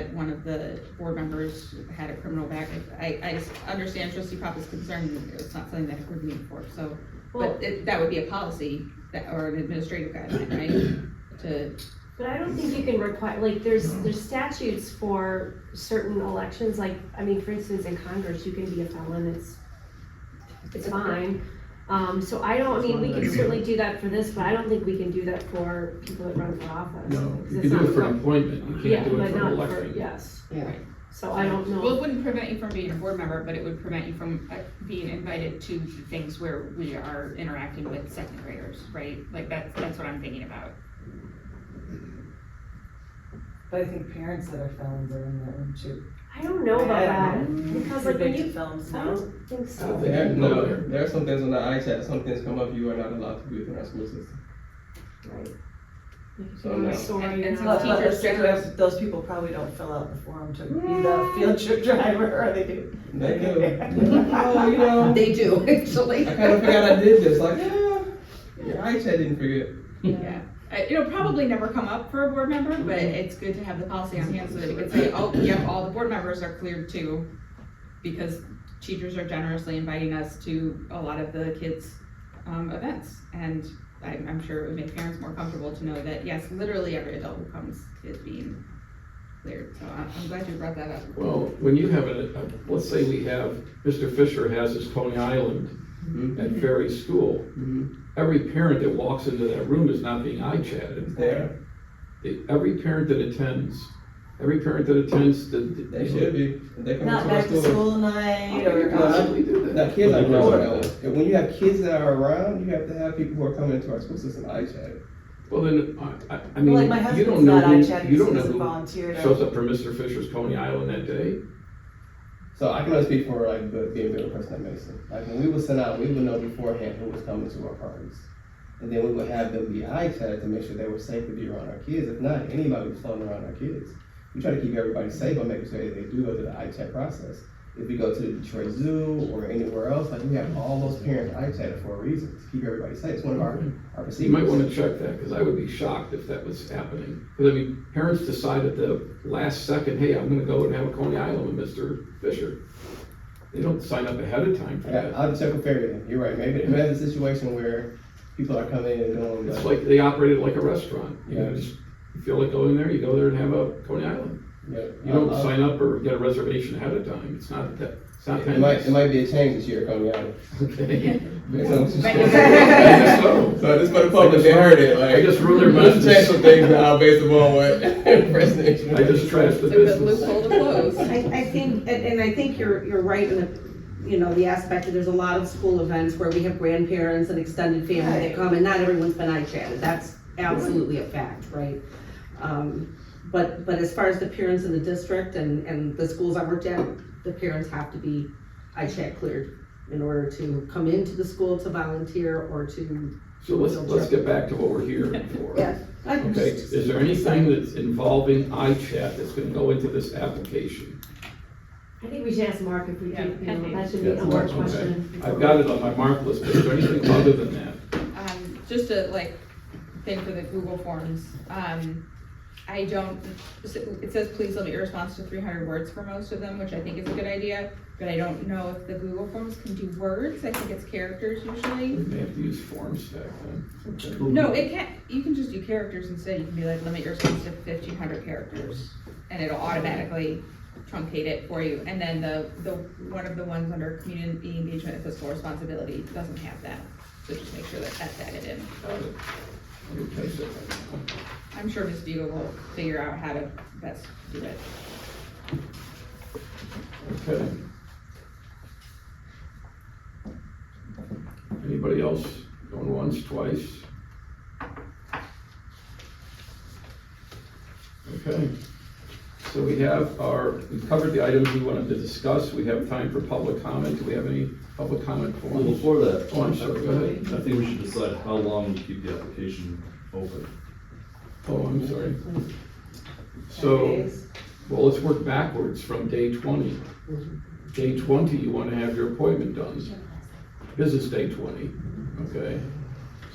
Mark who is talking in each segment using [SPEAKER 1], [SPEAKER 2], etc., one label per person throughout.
[SPEAKER 1] of the board members had a criminal background. I, I s- understand trustee Papa's concern, it's not something that we're meeting for, so,
[SPEAKER 2] Well,
[SPEAKER 1] but it, that would be a policy that, or an administrative guideline, right? To,
[SPEAKER 2] but I don't think you can require, like, there's, there's statutes for certain elections, like, I mean, for instance, in Congress, you can be a felon, it's, it's fine. Um, so I don't, I mean, we can certainly do that for this, but I don't think we can do that for people that run for office.
[SPEAKER 3] No,
[SPEAKER 2] 'cause
[SPEAKER 3] you
[SPEAKER 2] it's
[SPEAKER 3] can do
[SPEAKER 2] not
[SPEAKER 3] it for
[SPEAKER 2] from-
[SPEAKER 3] appointment, you
[SPEAKER 2] Yeah,
[SPEAKER 3] can't do
[SPEAKER 2] but
[SPEAKER 3] it for
[SPEAKER 2] not for,
[SPEAKER 3] election.
[SPEAKER 2] yes,
[SPEAKER 4] Yeah.
[SPEAKER 2] so I don't
[SPEAKER 5] Well, it
[SPEAKER 2] know,
[SPEAKER 5] wouldn't prevent you from being a board member, but it would prevent you from uh, being invited to things where we are interacting with second graders, right? Like that's, that's what I'm thinking about.
[SPEAKER 4] But I think parents that are felons are in that room too.
[SPEAKER 2] I don't know about that, because like when you,
[SPEAKER 4] Films
[SPEAKER 2] I
[SPEAKER 4] now.
[SPEAKER 2] don't think so.
[SPEAKER 6] There, no, there are some things on the iChat, some things come up you are not allowed to do within our school system.
[SPEAKER 2] Right.
[SPEAKER 6] So, no.
[SPEAKER 2] Sorry,
[SPEAKER 5] And- and
[SPEAKER 2] you're
[SPEAKER 5] so
[SPEAKER 2] not-
[SPEAKER 4] But, but
[SPEAKER 5] teachers
[SPEAKER 4] those people-
[SPEAKER 5] generally-
[SPEAKER 4] those people probably don't fill out the form to be the field trip driver, or they do.
[SPEAKER 6] They do. Oh, you know,
[SPEAKER 7] They do,
[SPEAKER 6] I
[SPEAKER 7] actually.
[SPEAKER 6] kind of forgot I did this, like, yeah, your iChat didn't forget.
[SPEAKER 1] yeah. Uh, It'll probably never come up for a board member, but it's good to have the policy on hand so that we can say, oh, yep, all the board members are cleared too. Because teachers are generously inviting us to a lot of the kids' um, events. And I'm, I'm sure it would make parents more comfortable to know that, yes, literally every adult who comes is being cleared. So I'm, I'm glad you brought that up.
[SPEAKER 3] Well, when you have a, a- let's say we have, Mr. Fisher has his Coney Island
[SPEAKER 6] Mm-hmm.
[SPEAKER 3] at Ferry School.
[SPEAKER 6] Mhm.
[SPEAKER 3] Every parent that walks into that room is not being eye-chatted.
[SPEAKER 6] There,
[SPEAKER 3] It- Every parent that attends, every parent that attends the. the-
[SPEAKER 6] they should be, if they come
[SPEAKER 4] Not
[SPEAKER 6] into
[SPEAKER 4] back
[SPEAKER 6] our
[SPEAKER 4] to
[SPEAKER 6] school.
[SPEAKER 4] school night
[SPEAKER 3] They
[SPEAKER 4] or. um,
[SPEAKER 3] Possibly do
[SPEAKER 6] Now,
[SPEAKER 3] that.
[SPEAKER 6] kids are
[SPEAKER 8] But it
[SPEAKER 6] grown
[SPEAKER 8] doesn't.
[SPEAKER 6] now, and when you have kids that are around, you have to have people who are coming into our school system iChat.
[SPEAKER 3] Well, then, I, I, I mean,
[SPEAKER 4] Like my
[SPEAKER 3] you
[SPEAKER 4] husband's
[SPEAKER 3] don't know
[SPEAKER 4] not eye
[SPEAKER 3] who,
[SPEAKER 4] chatting,
[SPEAKER 3] you
[SPEAKER 4] so
[SPEAKER 3] don't know
[SPEAKER 4] he doesn't
[SPEAKER 3] who
[SPEAKER 4] volunteer
[SPEAKER 3] shows
[SPEAKER 4] to.
[SPEAKER 3] up for Mr. Fisher's Coney Island that day.
[SPEAKER 6] So I can only speak for like the, being a middle person at Mason. Like when we would send out, we would know beforehand who was coming to our parties. And then we would have them be eye chatted to make sure they were safe to be around our kids. If not, anybody was floating around our kids. We try to keep everybody safe by making sure that they do go through the eye chat process. If we go to the Detroit Zoo or anywhere else, like we have all those parents eye chatted for a reason, to keep everybody safe. It's one of our, our
[SPEAKER 3] You might want to
[SPEAKER 6] procedures.
[SPEAKER 3] check that, because I would be shocked if that was happening. Because I mean, parents decide at the last second, hey, I'm gonna go and have a Coney Island with Mr. Fisher. They don't sign up ahead of time for
[SPEAKER 6] Yeah,
[SPEAKER 3] that.
[SPEAKER 6] I'll have to check with Ferry then. You're right. Maybe, maybe that's a situation where people are coming in and going
[SPEAKER 3] It's
[SPEAKER 6] like,
[SPEAKER 3] like, they operate it like a restaurant. You
[SPEAKER 6] Yeah.
[SPEAKER 3] just feel like going there, you go there and have a Coney Island.
[SPEAKER 6] yeah,
[SPEAKER 3] You don't
[SPEAKER 6] I'll- I'll-
[SPEAKER 3] sign up or get a reservation ahead of time. It's not that, it's not
[SPEAKER 6] It might, it
[SPEAKER 3] that.
[SPEAKER 6] might be a change this year coming out.
[SPEAKER 3] Okay.
[SPEAKER 6] So,
[SPEAKER 3] I guess so.
[SPEAKER 6] this for the public, they heard it, like.
[SPEAKER 3] I just ruined their
[SPEAKER 6] Let's
[SPEAKER 3] business.
[SPEAKER 6] change some things now based upon what President.
[SPEAKER 3] I just trashed
[SPEAKER 1] It's
[SPEAKER 3] the
[SPEAKER 1] a good
[SPEAKER 3] business.
[SPEAKER 1] loophole to close.
[SPEAKER 7] I, I think, and, and I think you're, you're right in the, you know, the aspect that there's a lot of school events where we have grandparents and extended family that
[SPEAKER 4] Right.
[SPEAKER 7] come, and not everyone's been eye chatted, that's absolutely a fact, right? Um, but, but as far as the parents in the district and, and the schools I worked at, the parents have to be eye chat cleared in order to come into the school to volunteer or to.
[SPEAKER 3] So let's, let's get back to what we're here for.
[SPEAKER 7] I-
[SPEAKER 3] Okay, is there anything that's involving iChat that's gonna go into this application?
[SPEAKER 2] I think we should ask Mark if we
[SPEAKER 5] Yeah,
[SPEAKER 2] can, you know,
[SPEAKER 5] pending.
[SPEAKER 2] that should be
[SPEAKER 6] Yeah,
[SPEAKER 2] a more
[SPEAKER 3] okay.
[SPEAKER 2] question.
[SPEAKER 3] I've got it on my mark list, but is there anything other than that?
[SPEAKER 5] Um, just a like thing for the Google Forms, um, I don't, it says, please limit your response to three hundred words for most of them, which I think is a good idea. But I don't know if the Google Forms can do words, I think it's characters usually.
[SPEAKER 3] We may have to use forms back then. Okay.
[SPEAKER 5] No, it can't, you can just do characters instead, you can be like, limit your response to fifteen hundred characters, and it'll automatically truncate it for you, and then the, the, one of the ones under community engagement and fiscal responsibility doesn't have that, so just make sure that that's added in.
[SPEAKER 3] Got it. Okay, so-
[SPEAKER 5] I'm sure Ms. Beagle will figure out how to best do it.
[SPEAKER 3] Okay. Anybody else going once, twice? Okay, so we have our, we covered the items we wanted to discuss, we have time for public comment, do we have any public comment
[SPEAKER 8] Well,
[SPEAKER 3] forms?
[SPEAKER 8] before that.
[SPEAKER 3] Oh, I'm sorry, go ahead.
[SPEAKER 8] I think we should decide how long we keep the application open.
[SPEAKER 3] Oh, I'm sorry. So, well, let's work backwards from day twenty. Day twenty, you wanna have your appointment done, business day twenty, okay?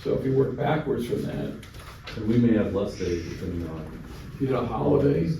[SPEAKER 3] So if you work backwards from that,
[SPEAKER 8] And we may have less days depending on
[SPEAKER 3] you get a holiday,